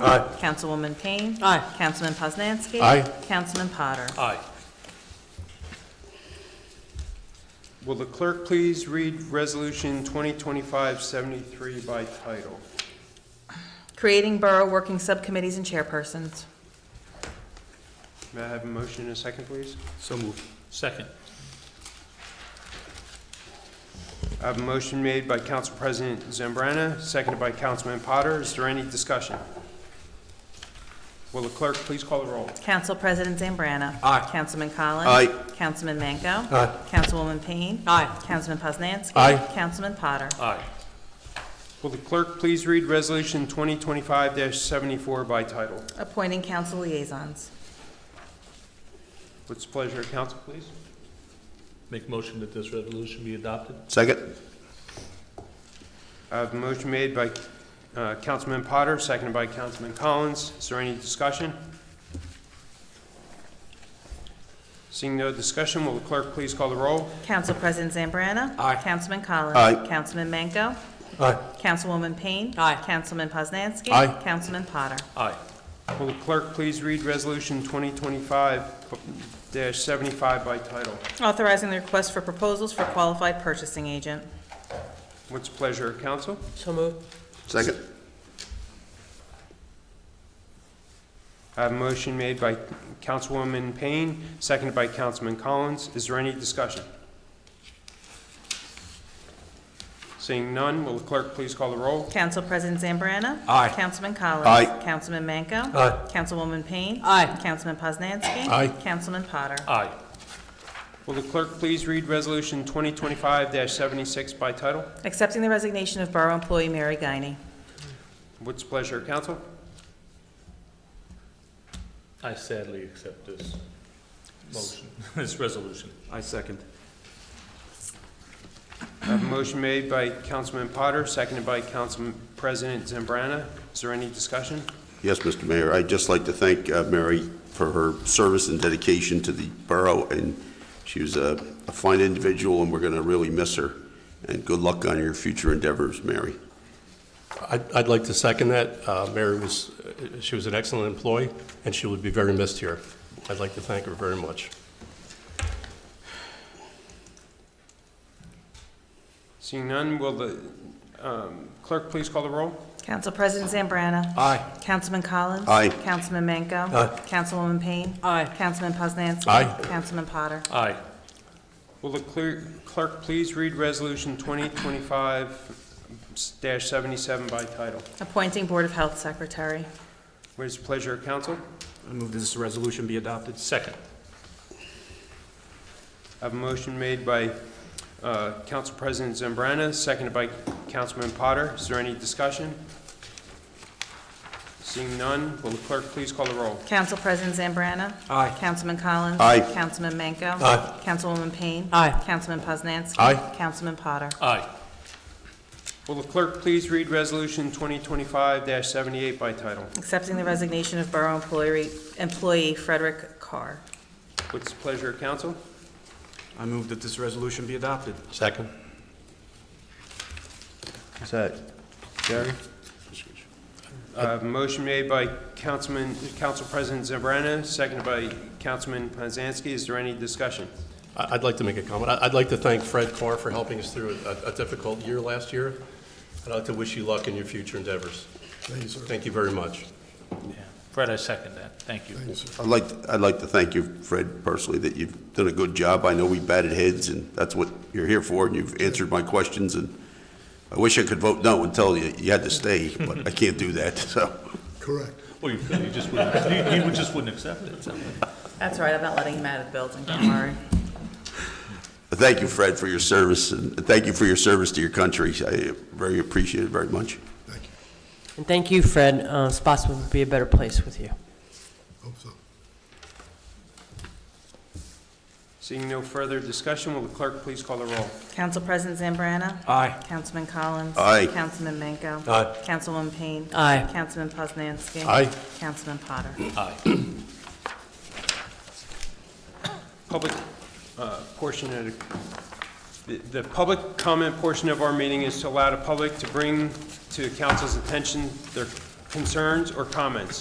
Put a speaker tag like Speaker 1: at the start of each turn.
Speaker 1: Aye.
Speaker 2: Councilwoman Payne.
Speaker 3: Aye.
Speaker 2: Councilman Poznanski.
Speaker 1: Aye.
Speaker 2: Councilman Potter.
Speaker 4: Aye.
Speaker 5: Will the clerk please read Resolution 2025-73 by title?
Speaker 2: Creating Borough Working Subcommittees and Chairpersons.
Speaker 5: May I have a motion and a second, please?
Speaker 4: So moved. Second.
Speaker 5: I have a motion made by Council President Zambrana, seconded by Councilman Potter. Is there any discussion? Will the clerk please call the roll?
Speaker 2: Council President Zambrana.
Speaker 4: Aye.
Speaker 2: Councilman Collins.
Speaker 1: Aye.
Speaker 2: Councilman Manco.
Speaker 1: Aye.
Speaker 2: Councilwoman Payne.
Speaker 3: Aye.
Speaker 2: Councilman Poznanski.
Speaker 1: Aye.
Speaker 2: Councilman Potter.
Speaker 4: Aye.
Speaker 5: Will the clerk please read Resolution 2025-74 by title?
Speaker 2: Appointing council liaisons.
Speaker 5: What's the pleasure of council, please?
Speaker 4: Make motion that this resolution be adopted?
Speaker 1: Second?
Speaker 5: I have a motion made by uh, Councilman Potter, seconded by Councilman Collins. Is there any discussion? Seeing no discussion, will the clerk please call the roll?
Speaker 2: Council President Zambrana.
Speaker 4: Aye.
Speaker 2: Councilman Collins.
Speaker 1: Aye.
Speaker 2: Councilman Manco.
Speaker 1: Aye.
Speaker 2: Councilwoman Payne.
Speaker 3: Aye.
Speaker 2: Councilman Poznanski.
Speaker 1: Aye.
Speaker 2: Councilman Potter.
Speaker 4: Aye.
Speaker 5: Will the clerk please read Resolution 2025-75 by title?
Speaker 2: Authorizing the request for proposals for qualified purchasing agent.
Speaker 5: What's the pleasure of council?
Speaker 3: So moved.
Speaker 1: Second?
Speaker 5: I have a motion made by Councilwoman Payne, seconded by Councilman Collins. Is there any discussion? Seeing none, will the clerk please call the roll?
Speaker 2: Council President Zambrana.
Speaker 4: Aye.
Speaker 2: Councilman Collins.
Speaker 1: Aye.
Speaker 2: Councilman Manco.
Speaker 1: Aye.
Speaker 2: Councilwoman Payne.
Speaker 3: Aye.
Speaker 2: Councilman Poznanski.
Speaker 1: Aye.
Speaker 2: Councilman Potter.
Speaker 4: Aye.
Speaker 5: Will the clerk please read Resolution 2025-76 by title?
Speaker 2: Accepting the resignation of Borough employee Mary Guiney.
Speaker 5: What's the pleasure of council?
Speaker 4: I sadly accept this motion, this resolution.
Speaker 6: I second.
Speaker 5: I have a motion made by Councilman Potter, seconded by Council President Zambrana. Is there any discussion?
Speaker 7: Yes, Mr. Mayor, I'd just like to thank uh, Mary for her service and dedication to the borough, and she was a a fine individual, and we're going to really miss her. And good luck on your future endeavors, Mary.
Speaker 8: I'd I'd like to second that. Uh, Mary was, uh, she was an excellent employee, and she would be very missed here. I'd like to thank her very much.
Speaker 5: Seeing none, will the um, clerk please call the roll?
Speaker 2: Council President Zambrana.
Speaker 4: Aye.
Speaker 2: Councilman Collins.
Speaker 7: Aye.
Speaker 2: Councilman Manco.
Speaker 8: Aye.
Speaker 2: Councilwoman Payne.
Speaker 3: Aye.
Speaker 2: Councilman Poznanski.
Speaker 8: Aye.
Speaker 2: Councilman Potter.
Speaker 4: Aye.
Speaker 5: Will the clear- clerk please read Resolution 2025-77 by title?
Speaker 2: Appointing Board of Health Secretary.
Speaker 5: What is the pleasure of council?
Speaker 6: I move that this resolution be adopted.
Speaker 4: Second.
Speaker 5: I have a motion made by uh, Council President Zambrana, seconded by Councilman Potter. Is there any discussion? Seeing none, will the clerk please call the roll?
Speaker 2: Council President Zambrana.
Speaker 6: Aye.
Speaker 2: Councilman Collins.
Speaker 7: Aye.
Speaker 2: Councilman Manco.
Speaker 8: Aye.
Speaker 2: Councilwoman Payne.
Speaker 3: Aye.
Speaker 2: Councilman Poznanski.
Speaker 8: Aye.
Speaker 2: Councilman Potter.
Speaker 4: Aye.
Speaker 5: Will the clerk please read Resolution 2025-78 by title?
Speaker 2: Accepting the resignation of Borough employee employee Frederick Carr.
Speaker 5: What's the pleasure of council?
Speaker 6: I move that this resolution be adopted.
Speaker 8: Second?
Speaker 1: Is that Gary?
Speaker 5: I have a Uh, motion made by Councilman, Council President Zambrana, seconded by Councilman Poznanski. Is there any discussion?
Speaker 8: I- I'd like to make a comment. I- I'd like to thank Fred Carr for helping us through a- a difficult year last year. I'd like to wish you luck in your future endeavors. Thank you, sir. Thank you very much.
Speaker 4: Yeah. Fred, I second that. Thank you.
Speaker 7: I'd like, I'd like to thank you, Fred, personally, that you've done a good job. I know we batted heads, and that's what you're here for, and you've answered my questions, and I wish I could vote no and tell you you had to stay, but I can't do that, so.
Speaker 9: Correct.
Speaker 4: Well, you could, you just wouldn't, you- you would- just wouldn't accept it. so.
Speaker 2: That's right, I'm not letting him out of the building, don't worry.
Speaker 7: But Thank you, Fred, for your service, and thank you for your service to your country. I very appreciate it very much.
Speaker 9: Thank you.
Speaker 3: And thank you, Fred. Uh, Spotswood would be a better place with you.
Speaker 9: Hope so.
Speaker 5: Seeing no further discussion, will the clerk please call the roll?
Speaker 2: Council President Zambrana.
Speaker 6: Aye.
Speaker 2: Councilman Collins.
Speaker 7: Aye.
Speaker 2: Councilman Manco.
Speaker 8: Aye.
Speaker 2: Councilwoman Payne.
Speaker 3: Aye.
Speaker 2: Councilman Poznanski.
Speaker 8: Aye.
Speaker 2: Councilman Potter.
Speaker 4: Aye.
Speaker 5: Public uh, portion of, the- the public comment portion of our meeting is to allow the public to bring to council's attention their concerns, or comments?